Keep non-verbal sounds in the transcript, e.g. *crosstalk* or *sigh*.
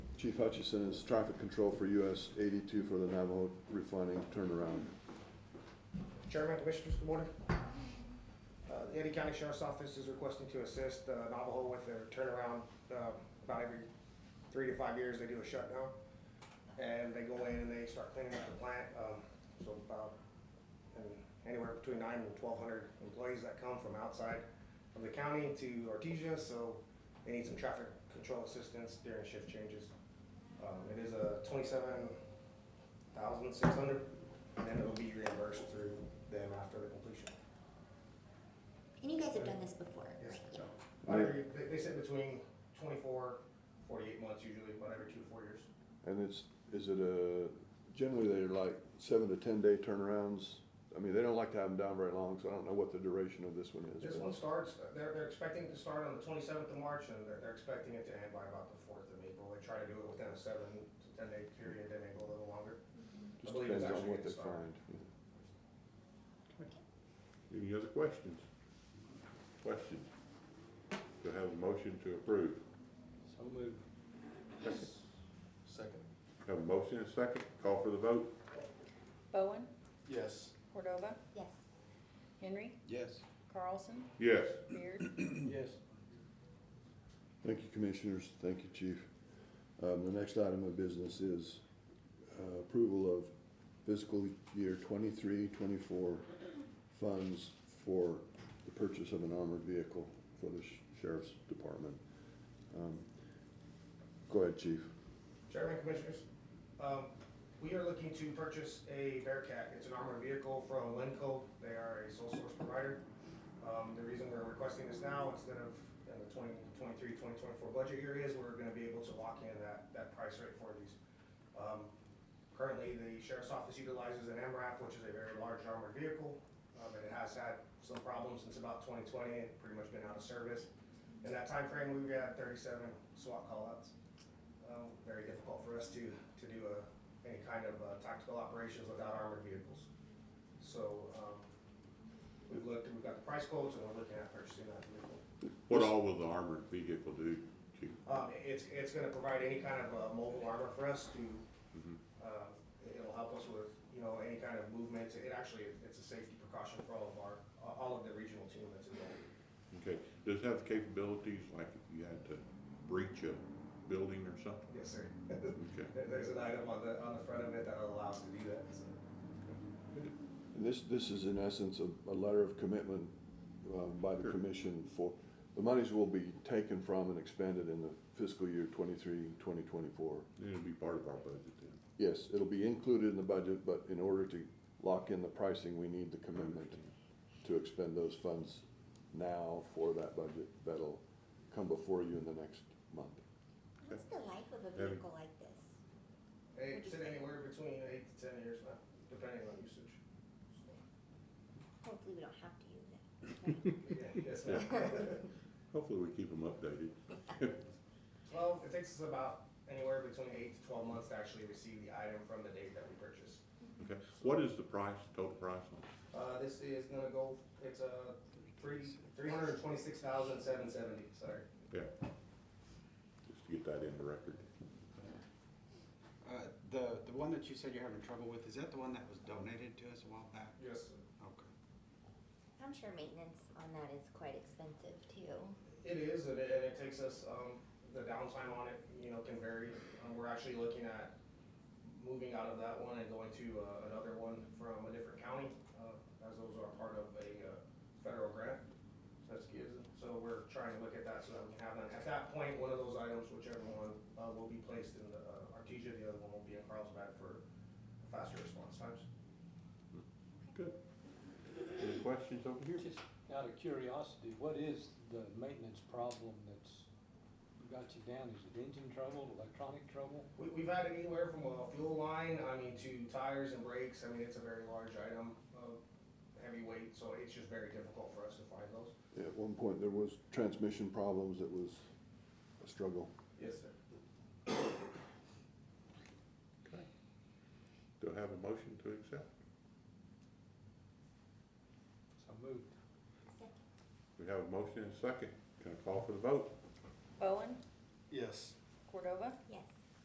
Chief Hutchison is traffic control for US eighty-two for the Navajo refining turnaround. Chairman, Commissioners, good morning. Uh, The Eddie County Sheriff's Office is requesting to assist uh, Navajo with their turnaround. Um, About every three to five years, they do a shutdown. And they go in and they start cleaning up the plant. um, So about, and anywhere between nine and twelve hundred employees that come from outside of the county to Artesia. So they need some traffic control assistance during shift changes. Um, It is a twenty-seven thousand six hundred and then it'll be reimbursed through them after the completion. And you guys have done this before, right? So, Yeah. every- They, they said between 24, 48 months usually, but every two to four years. And it's, is it a, generally they're like seven to ten day turnarounds? I mean, they don't like to have them down very long, so I don't know what the duration of this one is. This but- one starts, they're, they're expecting to start on the twenty-seventh of March, and they're, they're expecting it to end by about the fourth of April. They try to do it within a seven to ten day period, they may go a little longer. Just believe it's depends on actually what they getting started. find. Any other questions? Questions? Do I have a motion to approve? So moved. Second. Have a motion and a second, call for the vote? Bowen, Yes. Cordova, Yes. Henry, Yes. Carlson, Yes. Beard, Yes. Thank you, Commissioners. Thank you, Chief. Um, The next item of business is uh, approval of fiscal year 23-24 funds for the purchase of an armored vehicle for the sh- sheriff's department. Um, Go ahead, Chief. Chairman, Commissioners, um, we are looking to purchase a Bearcat. It's an armored vehicle from Lenco. They are a sole source provider. Um, the reason we're requesting this now instead of in the 2023-2024 budget year is we're gonna be able to lock in that, that price rate for these. Um, currently, the sheriff's office utilizes an MRAP, which is a very large armored vehicle. Um, and it has had some problems since about twenty twenty, It's pretty much been out of service. In that time frame, we've had thirty-seven SWAT callouts um, very difficult for us to, to do a, any kind of uh, tactical operations without armored vehicles. So, um, we've looked, we've got the price quotes and we're looking at purchasing that vehicle. What all will the armored vehicle do? Chief? Um, it's, it's gonna provide any kind of, uh, mobile armor for us to, uh, it'll help us with, you know, any kind of movements. It actually, it's a safety precaution for all of our, all of the regional team that's involved. Okay, does it have the capabilities, like if you had to breach a building or something? Yes, sir. Okay. *laughs* There- There's an item on the, on the front of it that allows to do that, so. And this, this is in essence a, a letter of commitment uh, by the Sure. commission for, the monies will be taken from and expended in the fiscal year 23-2024. It'll be part of our budget then. Yes, it'll be included in the budget, but in order to lock in the pricing, we need the commitment to expend those funds now for that budget. That'll come before you in the next month. What's the life of a Very- vehicle like this? Hey, It's in anywhere between eight to ten years now, depending on usage. Hopefully, we don't have to use it. So, yeah, yes, ma'am. *laughs* Hopefully we keep them updated. *laughs* Well, it takes us about anywhere between eight to twelve months to actually receive the item from the date that we purchase. Okay, what is the price, total price on it? Uh, this is gonna go, it's a three, three hundred and twenty-six thousand seven seventy, sorry. Yeah. Just to get that in the record. Uh, the, the one that you said you're having trouble with, is that the one that was donated to us a while back? Yes. Okay. I'm sure maintenance on that is quite expensive too. It is, and it, and it takes us, um, the downtime on it, you know, can vary. Um, we're actually looking at moving out of that one and going to, uh, another one from a different county, uh, as those are part of a, uh, federal grant. That's good, so we're trying to look at that so that we can have that. At that point, one of those items, whichever one, uh, will be placed in the, uh, Artesia, the other one will be in Carlsbad for faster response times. Good. Any questions over here? Just out of curiosity, what is the maintenance problem that's got you down? Is it engine trouble, electronic trouble? We, we've had anywhere from a fuel line, I mean, to tires and brakes, I mean, it's a very large item of heavy weight, so it's just very difficult for us to find those. At one point, there was transmission problems. It was a struggle. Yes, sir. Okay. Do I have a motion to accept? So moved. Second. We have a motion and a second. Can I call for the vote? Bowen, Yes. Cordova, Yes.